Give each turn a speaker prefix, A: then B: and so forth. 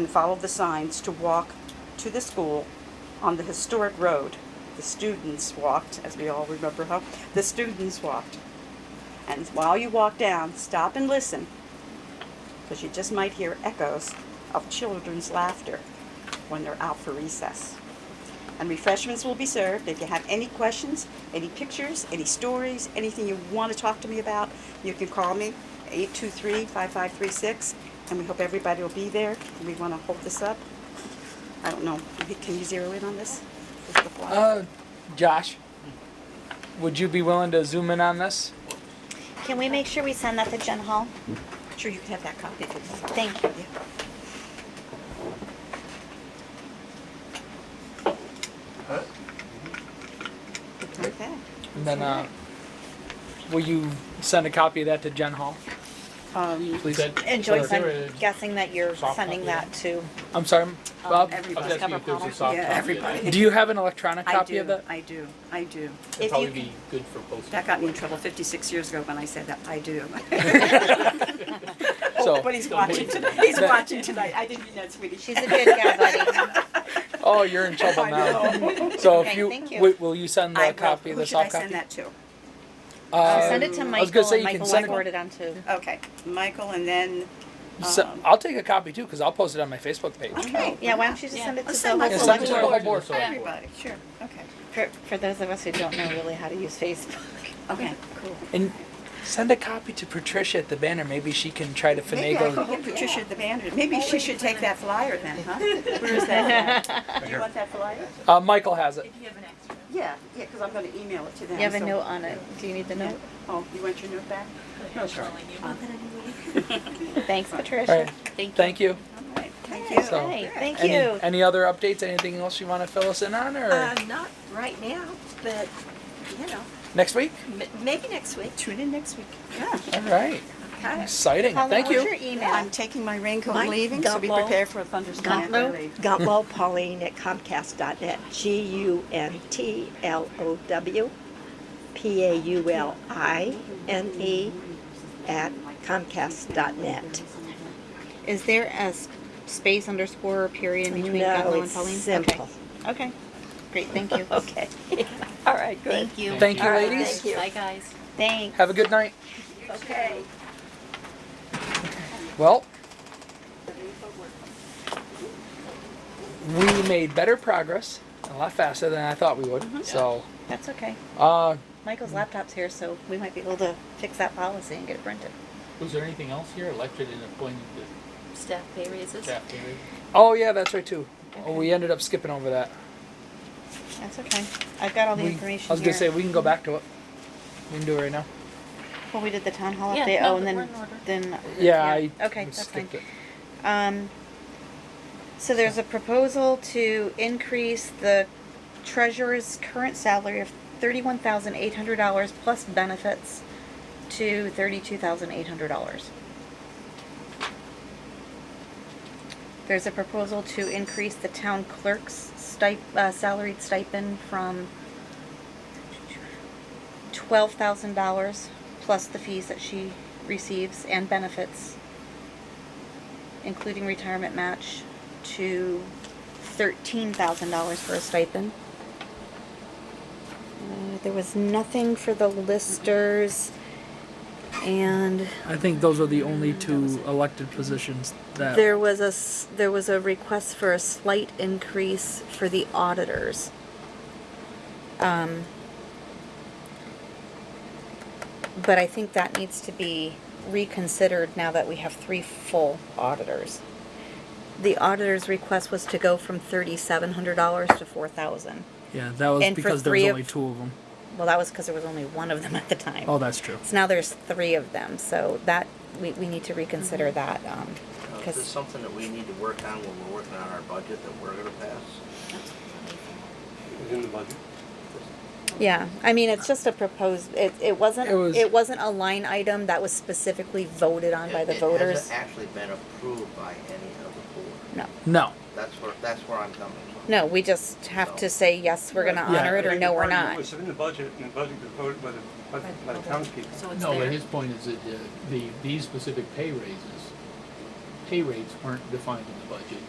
A: and follow the signs to walk to the school on the historic road. The students walked, as we all remember how, the students walked. And while you walk down, stop and listen, because you just might hear echoes of children's laughter when they're out for recess. And refreshments will be served. If you have any questions, any pictures, any stories, anything you want to talk to me about, you can call me 823-5536. And we hope everybody will be there. And we want to hold this up. I don't know. Can you zero in on this? This is the flyer.
B: Uh, Josh, would you be willing to zoom in on this?
C: Can we make sure we send that to Jen Hall?
A: sure, you can have that copy. if you want.
C: Thank you.
A: Yeah. Okay.
B: And then, uh, will you send a copy of that to Jen Hall,
A: Um,
B: please?
D: That-
C: And Joyce,
D: Sorry.
C: I'm guessing that you're
D: Soft
C: sending
D: copy.
C: that to,
B: I'm sorry, Bob.
D: I was
A: everybody.
D: asking if there was a soft
E: Yeah,
D: copy.
E: everybody.
B: Do you have an electronic
E: I
B: copy
E: do,
B: of that?
E: I do, I do.
D: It'd
A: If
D: probably
A: you
D: be good for posting.
E: That got me in trouble 56 years ago when I said that, I do.
B: Oh. So,
A: But he's watching tonight. He's watching tonight. I didn't mean that, sweetie.
C: she's a good guy, buddy.
B: oh, you're in trouble now. So if
C: Okay,
B: you,
C: thank you.
B: wi- will you send
E: I
B: the
E: will.
B: copy, the soft copy? Uh,
E: Who should I send that to?
C: I'll send it to
B: I was gonna
C: Michael
B: say
C: and
B: you can
C: Michael
B: send it-
C: will forward it on to.
E: Okay,
A: Michael and then,
B: So,
E: um,
B: I'll take a copy too, cause I'll post it on my Facebook page.
E: okay.
C: Yeah, why don't you just send it to
E: I'll
C: the
E: send my
C: whole
B: Yeah, send it
C: select
B: to
C: board?
B: the whole board.
E: Everybody, sure, okay,
C: For, for those of us who don't know really how to use Facebook.
E: okay, cool.
B: And send a copy to Patricia at the banner, maybe she can try to
E: Maybe I could
B: finagle.
E: get Patricia the Banner, maybe she should take that flyer then, huh? Where is that? at? Do you want that flyer?
B: Uh, Michael has it.
A: yeah, yeah, because I'm going to email it to them.
C: You have a
A: so-
C: note on it. Do you need the note?
A: Oh, you want your note back? No, sure.
C: Thanks,
B: All
C: Patricia.
B: right. Thank you.
E: All right, thank you.
B: So-
C: Hey, thank
B: Any,
C: you.
B: any other updates? Anything else you want to fill us in on, or
F: Uh, not right now, but, you know,
B: next week?
F: m- maybe next week.
A: Tune in next week.
B: All right.
F: Okay.
B: Exciting.
C: Paula,
B: Thank
C: what's
B: you.
C: your email?
A: I'm taking my raincoat
F: Mike
A: and leaving, so be
F: Gumbo.
A: prepared for a thunderstorm.
G: Gutlow, Gutlow Pauline at Comcast.net, G-U-N-T-L-O-W, P-A-U-L-I-N-E E at Comcast.net.
C: Is there a s- space underscore or period in between
G: No,
C: Gutlow and
G: it's
C: Pauline? Okay.
G: simple.
C: Okay, great, thank you.
G: Okay, all right, good.
C: Thank you.
B: Thank you,
C: All right,
B: ladies.
C: Bye, guys. Thanks.
B: Have a good night. Okay. Well, we made better progress a lot faster than I thought we would. So,
C: That's okay.
B: uh,
C: Michael's laptop's here, so we might be able to fix that policy and get it printed.
D: Was there anything else here, elected and appointed to
H: Staff pay raises.
D: staff area?
B: oh yeah, that's right too. Oh, we ended up skipping over that.
C: That's okay. I've got all the
B: We-
C: information
B: I was gonna
C: here.
B: say we can go back to it. We can do it right now.
C: Well, we did the town hall
H: Yeah,
C: update.
H: no,
C: oh, and
H: but
C: then
H: we're in order.
C: then
B: Yeah, I
C: okay, that's fine.
B: skipped it.
C: Um, so there's a proposal to increase the treasurer's current salary of thirty-one thousand eight hundred dollars plus benefits to thirty-two thousand eight hundred dollars. There's a proposal to increase the town clerk's stip- uh, salaried stipend from twelve thousand dollars plus the fees that she receives and benefits including retirement match, to thirteen thousand dollars for a stipend. Uh, There was nothing for the listers, and
B: I think those are the only two elected positions that.
C: there was a, s- there was a request for a slight increase for the auditors. Um, But I think that needs to be reconsidered now that we have three full auditors. The auditor's request was to go from thirty-seven hundred dollars to four thousand.
B: yeah, that was
C: and for
B: because there was
C: three of-
B: only two of them.
C: Well, that was because there was only one of them at the time.
B: Oh, that's true.
C: So now there's three of them, so that, we, we need to reconsider
B: Mm-hmm.
C: that, um,
I: Now, Is this
C: because,
I: Uh, something that we need to work on when we're working on our budget that we're gonna pass?
J: Within the budget?
C: yeah, I mean, it's just a proposed, it, it wasn't,
B: It was-
C: it wasn't a line item that was specifically voted on by
I: It-
C: the voters.
I: It hasn't actually been approved by any of the board.
C: No,
B: No.
I: That's where, that's where I'm coming from.
C: no, we just have to say, yes, we're gonna
B: Yeah.
C: honor it, or no, we're
J: It
C: not.
J: was in the budget, and the budget was voted by the, by the- by the townspeople.
H: So Oh, it's
D: No, but
H: there.
D: his point is that uh, the, these specific pay raises, pay rates weren't defined in the budget.